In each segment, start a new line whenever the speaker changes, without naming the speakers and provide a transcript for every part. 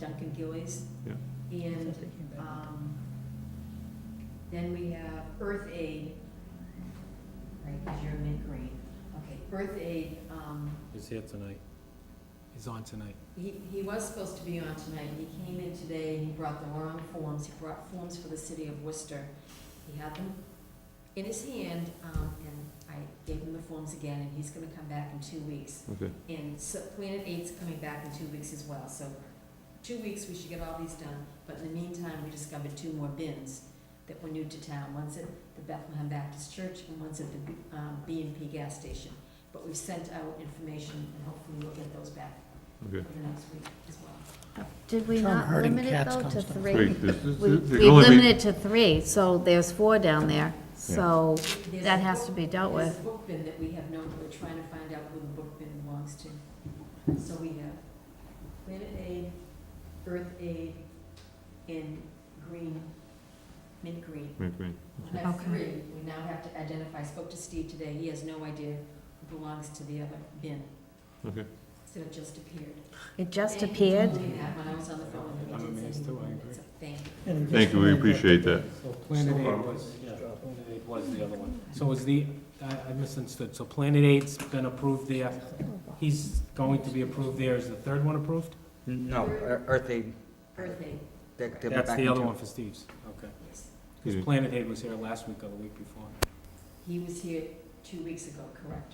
Duncan Gillies.
Yeah.
And um, Then we have Earth Aid, right, because you're mid-grade. Okay, Earth Aid, um,
He's here tonight. He's on tonight.
he, he was supposed to be on tonight, he came in today, he brought the wrong forms, he brought forms for the city of Worcester. He had them in his hand, um, and I gave him the forms again, and he's gonna come back in two weeks.
Okay.
And so Planet Eight's coming back in two weeks as well, so two weeks, we should get all these done. But in the meantime, we discovered two more bins that were new to town. One's at the Bethlehem Baptist Church and one's at the um, B and P gas station. But we've sent out information and hopefully we'll get those back
Okay.
for the next week as well.
Did we
Term
not
herding
limit it
cats
though
comes
to
from-
three?
Wait, this is,
We
the
we
only,
limited
thing-
to three, so there's four down there, so
There's
that
a
has to
book-
be dealt
There's
with.
a book bin that we have known, we're trying to find out who the book bin belongs to. So we have Planet Aid, Earth Aid, and Green, Mint Green.
wait, wait.
We have
Okay.
three, we now have to identify, I spoke to Steve today, he has no idea who belongs to the other bin.
Okay.
So it just appeared.
It just
And he told
appeared,
me that when I was on the phone with him,
I'm
he did
amazed
say he
too, I
wanted it,
agree.
so Thank you.
And
Thank you, we
just-
appreciate that.
So Planet
So-
Aid was, yeah, Planet Aid was the other one. So is the, I I misunderstood. So Planet Eight's been approved there. He's going to be approved there. Is the third one approved?
No, Ear- Earth Aid,
Earth Aid,
they're, they're back.
That's the other
into-
one for Steve's. Okay.
yes.
Yeah.
Because Planet Aid was here last week or the week before.
He was here two weeks ago, correct?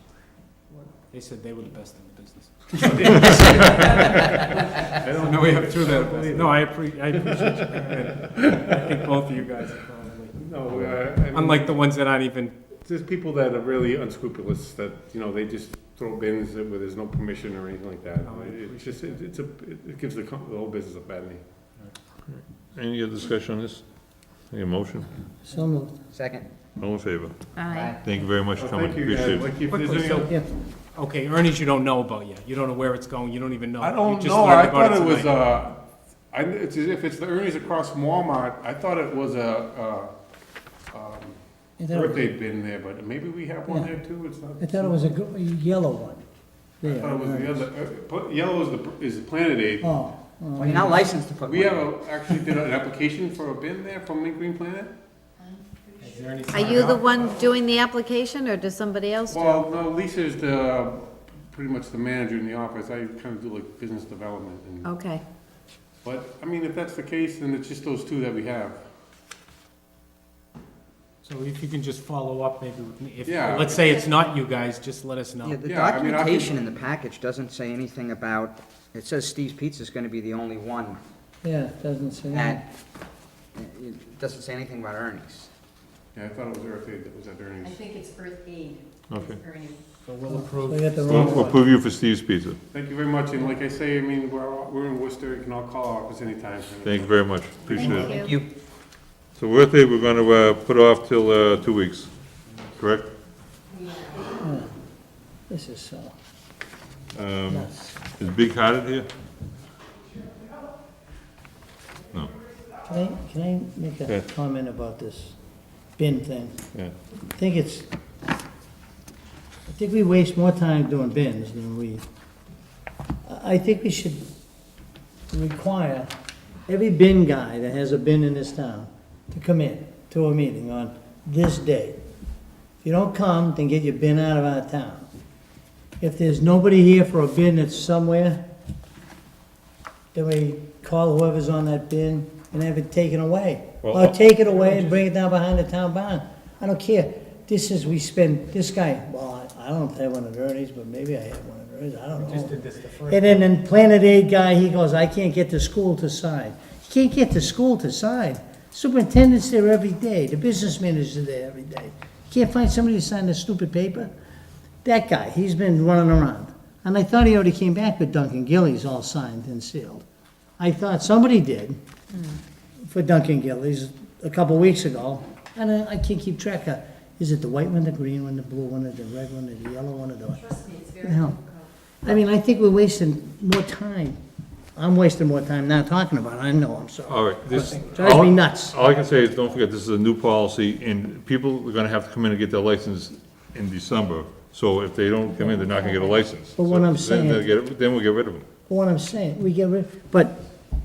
Or-
They said they were the best in the business. I don't know, we have two that are best. No, I appre, I appreciate you. I think both of you guys are probably,
No, uh, I mean,
unlike the ones that aren't even,
there's people that are really unscrupulous that you know they just throw bins where there's no permission or anything like that.
No, Oh, I
It- it's just it, it's a it it gives the, com- the whole business a bad name.
Any other discussion on this? Any motion?
So moved.
Second.
All in favor?
aye.
Thank you very much for
Well,
coming,
Oh, thank you guys.
appreciate it.
Like if there's
Quickly,
any,
so-
other-
Yeah.
okay, Ernie's you don't know about yet. You don't know where it's going, you don't even know.
I
uh, You
don't
just
know.
learned
I
about
thought it was
tonight.
uh, I, it's as if it's the Ernie's across from Walmart. I thought it was a uh, um,
I thought it was-
birthday bin there, but maybe we have one there too. It's not.
I thought it was a gr- a yellow one.
I thought it was the other. uh, put- Yellow is the is the Planet Aid.
Oh.
Well, you're not licensed to put
We
one
have
in.
a, actually did an application for a bin there from Mint Green Planet.
I'm
uh,
pretty
Is
sure-
there any
Are
sign
you the
off?
one doing the application, or does somebody else do? it?
Well, no, Lisa's the, pretty much the manager in the office, I kind of do like business development
Oh.
and,
Okay,
but, I mean, if that's the case, then it's just those two that we have.
So if you can just follow up, maybe, with me. if,
Yeah.
let's say it's not you guys, just let us
Yeah,
know.
the
Yeah, I mean, I
documentation in
can-
the package doesn't say anything about, it says Steve's Pizza's gonna be the only one
Yeah, it doesn't say that.
that, it doesn't say anything about Ernie's.
Yeah, I thought it was Earth Aid that was at
I
Ernie's.
think it's Earth Aid.
Okay.
Ernie.
So we'll
So you
approve.
got the
We'll
wrong
we'll
one.
approve you for Steve's Pizza.
Thank you very much, and like I say, I mean, we're, all- we're in Worcester, you can all call our office anytime.
Thank you very much, appreciate it.
thank you.
You,
So Earth Day, we're gonna, uh, put off till, uh, two weeks, correct?
This is so
Um,
nuts.
is Big Hearted here? No,
Can I, can I make
Yeah.
a comment about this bin thing?
yeah.
I think it's, I think we waste more time doing bins than we, I I think we should require every bin guy that has a bin in this town to come in to a meeting on this day. If you don't come, then get your bin out of our town. If there's nobody here for a bin that's somewhere, then we call whoever's on that bin and have it taken away.
Well,
Or take it away and bring it down behind the town barn. I don't care. This is, we spend, this guy, well, I I don't have one of Ernie's, but maybe I have one of Ernie's, I don't know.
Just did this the first.
And then, then Planet Aid guy, he goes, I can't get the school to sign. You can't get the school to sign. Superintendent's there every day, the business manager's there every day. You Can't find somebody to sign this stupid paper? That guy, he's been running around. And I thought he already came back with Duncan Gillies all signed and sealed. I thought somebody did for Duncan Gillies a couple weeks ago. And I, I can't keep track of, is it the white one, the green one, the blue one, or the red one, or the yellow one, or the?
Trust me, it's very
No.
difficult.
I mean, I think we're wasting more time. I'm wasting more time not talking about it, I know, I'm sorry.
All right, this.
Drives me nuts.
All I can say is, don't forget, this is a new policy, and people are gonna have to come in and get their license in December. So if they don't come in, they're not gonna get a license.
But what I'm
So then they'll
saying-
get it- Then we'll get rid of them.
But What I'm saying, we get rid, but